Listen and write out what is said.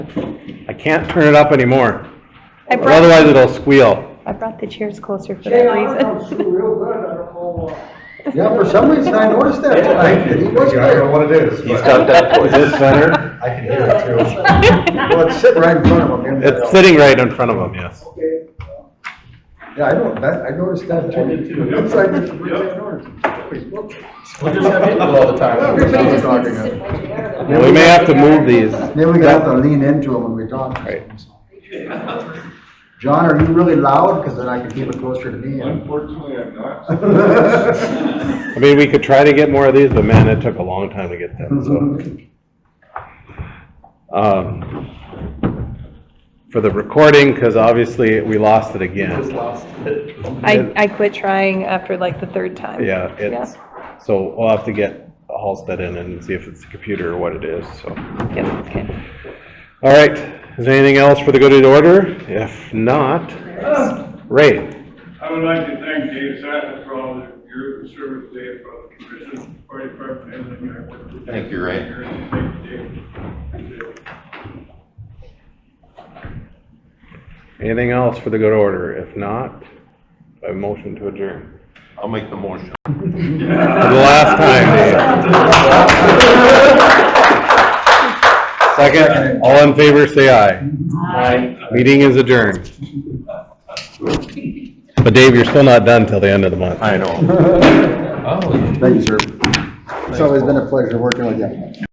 I can't turn it up anymore, I or otherwise brought, it'll squeal. I brought the chairs closer for Jay, that I don't reason. do real good, I don't know, uh, Yeah, for some reason I noticed that Yeah, I tonight. did. He was I don't know there. what it is. but that voice. Is it center? I can hear it too. Well, it's sitting right in front of him. It's sitting right in front of him, yes. okay. Yeah, I know, that, I noticed that too. I did too, yeah. It's like it's Yep. ignored. We just have people all the Everybody time. just- Well, we may have to move these. Then we got to lean into him when we talk. Right. John, are you really loud? Cause then I can keep it closer to me. Unfortunately, I'm not. I mean, we could try to get more of these, but man, it took a long time to get them, so. Um, For the recording, because obviously we lost it again. I, I quit trying after like the third time. Yeah, it's, so we'll have to get Halsted in and see if it's the computer or what it is, so. Yep, okay. All right, is there anything else for the good of the order? If not, Uh. Ray, I would like to thank Dave Sattler for all of your service today, for all the commission, for your department, and your. Thank you, Ray. Thank you, Dave. anything else for the good order? If not, a motion to adjourn. I'll make the motion. For the last time, Dave. Second, all in favor, say aye. Meeting is adjourned. But Dave, you're still not done till the end of the month. know. Oh. Thank you, sir. It's always been a pleasure working with you.